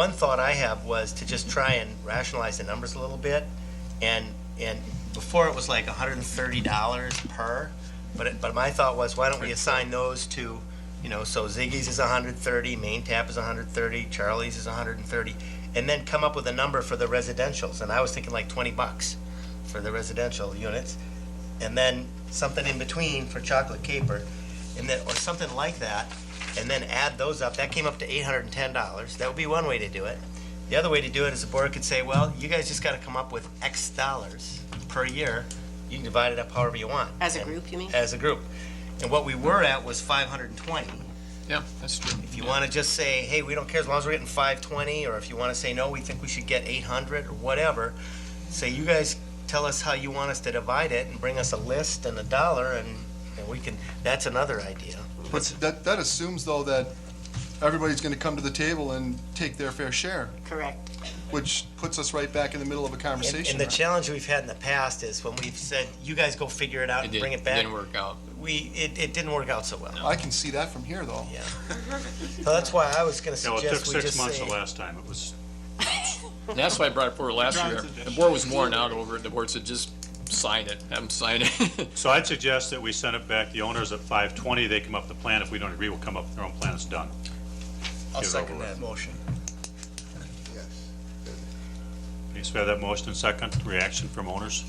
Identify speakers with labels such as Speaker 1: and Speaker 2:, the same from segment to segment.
Speaker 1: One thought I have was to just try and rationalize the numbers a little bit, and, and before it was like hundred and thirty dollars per, but, it- but my thought was, why don't we assign those to, you know, so Ziggy's is hundred thirty, Main Tap is hundred thirty, Charlie's is hundred and thirty, and then come up with a number for the residential's, and I was thinking like twenty bucks for the residential units, and then something in between for chocolate caper, and then, or something like that, and then add those up. That came up to eight hundred and ten dollars. That would be one way to do it. The other way to do it is the board could say, well, you guys just gotta come up with X dollars per year. You can divide it up however you want.
Speaker 2: As a
Speaker 1: And-
Speaker 2: group, you mean?
Speaker 1: As a group. And what we were at was five hundred and twenty.
Speaker 3: Yeah, that's true.
Speaker 1: If you wanna just say, hey, we don't care as long as we're getting five twenty, or if you wanna say, no, we think we should get eight hundred, or whatever, say, you guys tell us how you want us to divide it and bring us a list and a dollar and, and we can, that's another idea.
Speaker 4: But that, that assumes though that everybody's gonna come to the table and take their fair share,
Speaker 2: Correct.
Speaker 4: which puts us right back in the middle of a
Speaker 1: And-
Speaker 4: conversation.
Speaker 1: And the challenge we've had in the past is when we've said, you guys go figure it out
Speaker 3: It
Speaker 1: and
Speaker 3: did,
Speaker 1: bring it
Speaker 3: it
Speaker 1: back.
Speaker 3: didn't work out.
Speaker 1: We, it, it didn't work out so well.
Speaker 4: I can see that from here though.
Speaker 1: Yeah. So that's why I was gonna
Speaker 5: No, it took
Speaker 1: suggest we
Speaker 5: six
Speaker 1: just
Speaker 5: months the
Speaker 1: say,
Speaker 5: last time. It was,
Speaker 3: And that's why I brought it forward last year. The board was worn out over it. The board said, just sign it, have them sign it.
Speaker 5: so I'd suggest that we send it back. The owners at 520, they come up with the plan. If we don't agree, we'll come up with their own plan. It's done.
Speaker 1: I'll
Speaker 5: Get it
Speaker 1: second
Speaker 5: over with.
Speaker 1: that motion.
Speaker 5: Okay, so we have that motion and second. Reaction from owners?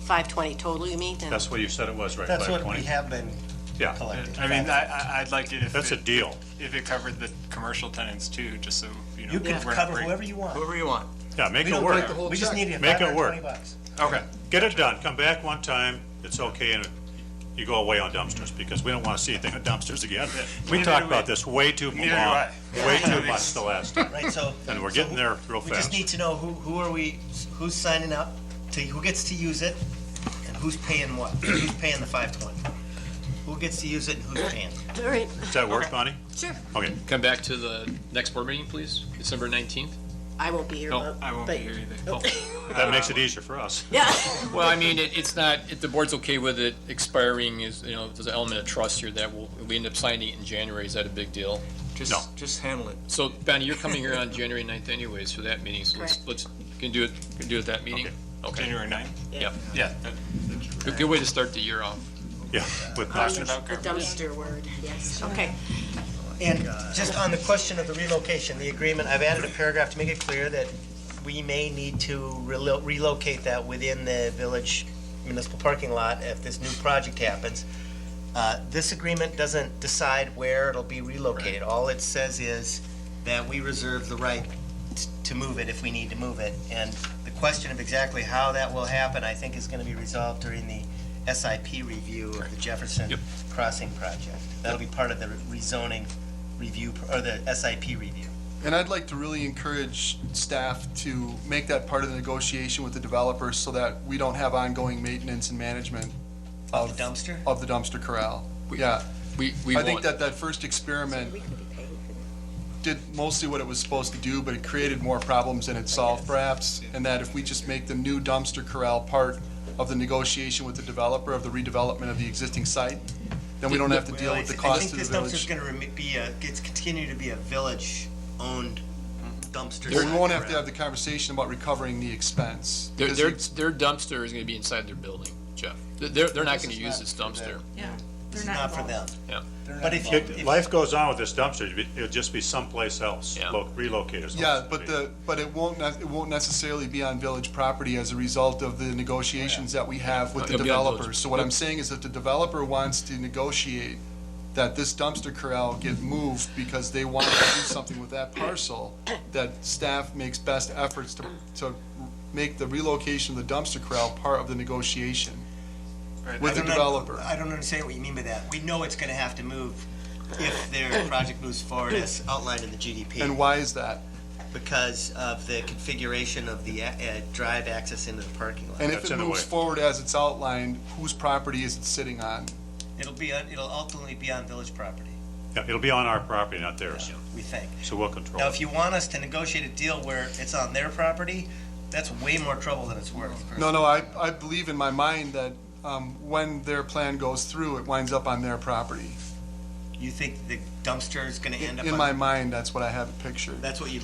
Speaker 2: 520 total, you mean? And-
Speaker 5: That's what you said it was, right?
Speaker 1: That's what we
Speaker 5: 520?
Speaker 1: have been
Speaker 5: Yeah,
Speaker 1: collecting.
Speaker 6: I mean, I, I- I'd like it if
Speaker 5: that's a
Speaker 6: it,
Speaker 5: deal.
Speaker 6: if it covered the commercial tenants too, just so, you know.
Speaker 1: You can
Speaker 6: we're not
Speaker 1: cover
Speaker 6: break-
Speaker 1: whoever you want.
Speaker 3: Whoever you want.
Speaker 5: Yeah, make
Speaker 4: We
Speaker 5: it
Speaker 4: don't
Speaker 5: work.
Speaker 4: take the whole
Speaker 1: We just
Speaker 4: check.
Speaker 1: need it
Speaker 5: Make it work.
Speaker 1: 520 bucks.
Speaker 3: Okay.
Speaker 5: Get it done. Come back one time. It's okay, and you go away on dumpsters because we don't want to see anything on dumpsters again. We
Speaker 6: Neither
Speaker 5: talked
Speaker 6: do
Speaker 5: about
Speaker 6: we.
Speaker 5: this way too long,
Speaker 6: Neither do I.
Speaker 5: way too much the last time.
Speaker 1: Right, so.
Speaker 5: And we're
Speaker 1: so
Speaker 5: getting there real
Speaker 1: We just
Speaker 5: fast.
Speaker 1: need to know who, who are we, who's signing up, to, who gets to use it, and who's paying what? Who's paying the 520? Who gets to use it and who's paying?
Speaker 2: All right,
Speaker 5: Does that work,
Speaker 2: Okay.
Speaker 5: Bonnie?
Speaker 2: sure.
Speaker 5: Okay.
Speaker 3: Come back to the next board meeting, please, December 19th.
Speaker 2: I won't be here.
Speaker 3: No,
Speaker 2: but-
Speaker 6: I won't be
Speaker 2: but- oh.
Speaker 6: here either.
Speaker 5: That makes it easier for us.
Speaker 2: Yeah.
Speaker 3: Well, I mean, it, it's not, if the board's okay with it expiring is, you know, there's an element of trust here that will, we end up signing it in January. Is that a big deal?
Speaker 5: No.
Speaker 7: Just, just handle it.
Speaker 3: So Bonnie, you're coming here on January 9th anyways for that meeting, so let's,
Speaker 2: Correct.
Speaker 3: let's, can do it, can do it that meeting? Okay.
Speaker 6: January ninth?
Speaker 3: Yep.
Speaker 6: Yeah.
Speaker 3: Good, good way to start the year off.
Speaker 5: Yeah, with
Speaker 2: Yes,
Speaker 5: dumpsters.
Speaker 6: about
Speaker 2: The dumpster word, yes. Okay.
Speaker 1: And just on the question of the relocation, the agreement, I've added a paragraph to make it clear that we may need to relo- relocate that within the village municipal parking lot if this new project happens. Uh, This agreement doesn't decide where it'll be relocated. All it says is that we reserve the right t- to move it if we need to move it. And the question of exactly how that will happen, I think, is going to be resolved during the SIP review of the Jefferson
Speaker 3: Yep.
Speaker 1: Crossing project. That'll be part of the rezoning review, pr- or the SIP review.
Speaker 4: And I'd like to really encourage staff to make that part of the negotiation with the developers so that we don't have ongoing maintenance and management
Speaker 1: Of the dumpster?
Speaker 4: of the dumpster corral.
Speaker 3: We-
Speaker 4: Yeah,
Speaker 3: We, we
Speaker 4: I
Speaker 3: want.
Speaker 4: think that that first experiment did mostly what it was supposed to do, but it created more problems than it solved perhaps. And that if we just make the new dumpster corral part of the negotiation with the developer of the redevelopment of the existing site, then we don't have to deal with the cost of the
Speaker 1: I think this dumpster's
Speaker 4: village.
Speaker 1: gonna remi- be a, it's continue to be a village-owned
Speaker 4: Mm-hmm.
Speaker 1: dumpster.
Speaker 4: Well, We won't have to
Speaker 1: site.
Speaker 4: have the conversation about recovering the expense.
Speaker 3: Their,
Speaker 4: because
Speaker 3: their,
Speaker 4: it's-
Speaker 3: their dumpster is gonna be inside their building, Jeff. They're- They're, they're not
Speaker 1: This
Speaker 3: gonna
Speaker 1: is
Speaker 3: use
Speaker 1: not
Speaker 3: this
Speaker 1: for
Speaker 3: dumpster.
Speaker 1: It's not for them.
Speaker 3: Yeah.
Speaker 1: But if you,
Speaker 5: It-
Speaker 1: if-
Speaker 5: Life goes on with this dumpster. It'd be- It'll just be someplace else,
Speaker 3: Yeah.
Speaker 5: lo- relocated.
Speaker 4: Yeah, but the, but it won't, ne- it won't necessarily be on village property as a result of the negotiations that we have with the
Speaker 3: It'll be on village.
Speaker 4: developers. So what I'm saying is that the developer wants to negotiate that this dumpster corral get moved because they want to do something with that parcel, that staff makes best efforts to, to make the relocation of the dumpster corral part of the negotiation with the
Speaker 1: I don't un-
Speaker 4: developer.
Speaker 1: I don't understand what you mean by that. We know it's gonna have to move if their project moves forward as outlined in the
Speaker 4: And
Speaker 1: GDP
Speaker 4: why is that?
Speaker 1: because of the configuration of the, a- uh, drive access into the parking lot.
Speaker 4: And if
Speaker 5: That's
Speaker 4: it
Speaker 5: in the
Speaker 4: moves
Speaker 5: way.
Speaker 4: forward as it's outlined, whose property is it sitting on?
Speaker 1: It'll be, on- it'll ultimately be on village property,
Speaker 5: Yeah, It'll be on our property, not theirs,
Speaker 1: we think.
Speaker 5: so we'll control
Speaker 1: Now,
Speaker 5: it.
Speaker 1: if you want us to negotiate a deal where it's on their property, that's way more trouble than it's worth.
Speaker 4: No, no, I, I believe in my mind that um, when their plan goes through, it winds up on their property.
Speaker 1: You think the dumpster is gonna end up
Speaker 4: In my
Speaker 1: on,
Speaker 4: mind, that's what I have pictured.
Speaker 1: that's what you